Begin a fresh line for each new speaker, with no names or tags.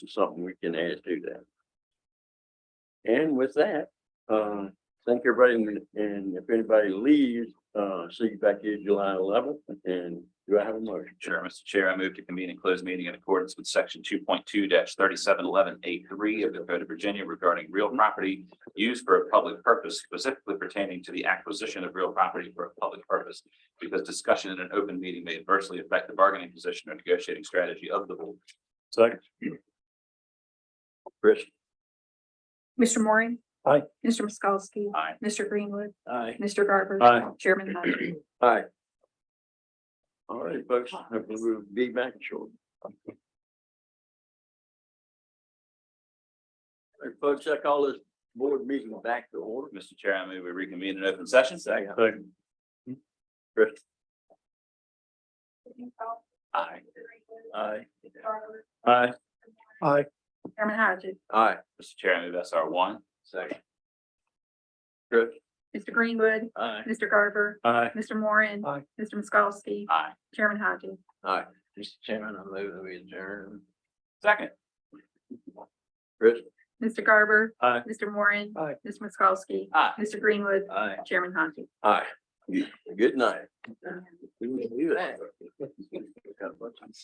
something we can add to that. And with that, uh, thank everybody, and- and if anybody leaves, uh, see you back here July eleventh, and do I have a motion?
Sure, Mr. Chair, I move to convene and close meeting in accordance with section two point two thirty-seven eleven eight three of the Code of Virginia regarding real property used for a public purpose specifically pertaining to the acquisition of real property for a public purpose. Because discussion in an open meeting may adversely affect the bargaining position or negotiating strategy of the board.
Second. Chris.
Mr. Moore.
Aye.
Mr. Miskowski.
Aye.
Mr. Greenwood.
Aye.
Mr. Garber.
Aye.
Chairman Hodges.
Aye. All right, folks, hopefully we'll be back shortly. All right, folks, I call this board meeting back to order.
Mr. Chair, I move we reconvene in open session. Second.
Second. Chris. Aye. Aye. Aye. Aye.
Chairman Hodges.
Aye.
Mr. Chair, I move S R one.
Second. Chris.
Mr. Greenwood.
Aye.
Mr. Garber.
Aye.
Mr. Moore.
Aye.
Mr. Miskowski.
Aye.
Chairman Hodges.
Aye. Mr. Chairman, I move that we adjourn.
Second.
Chris.
Mr. Garber.
Aye.
Mr. Moore.
Aye.
Mr. Miskowski.
Aye.
Mr. Greenwood.
Aye.
Chairman Hodges.
Aye. Good night. We can do that.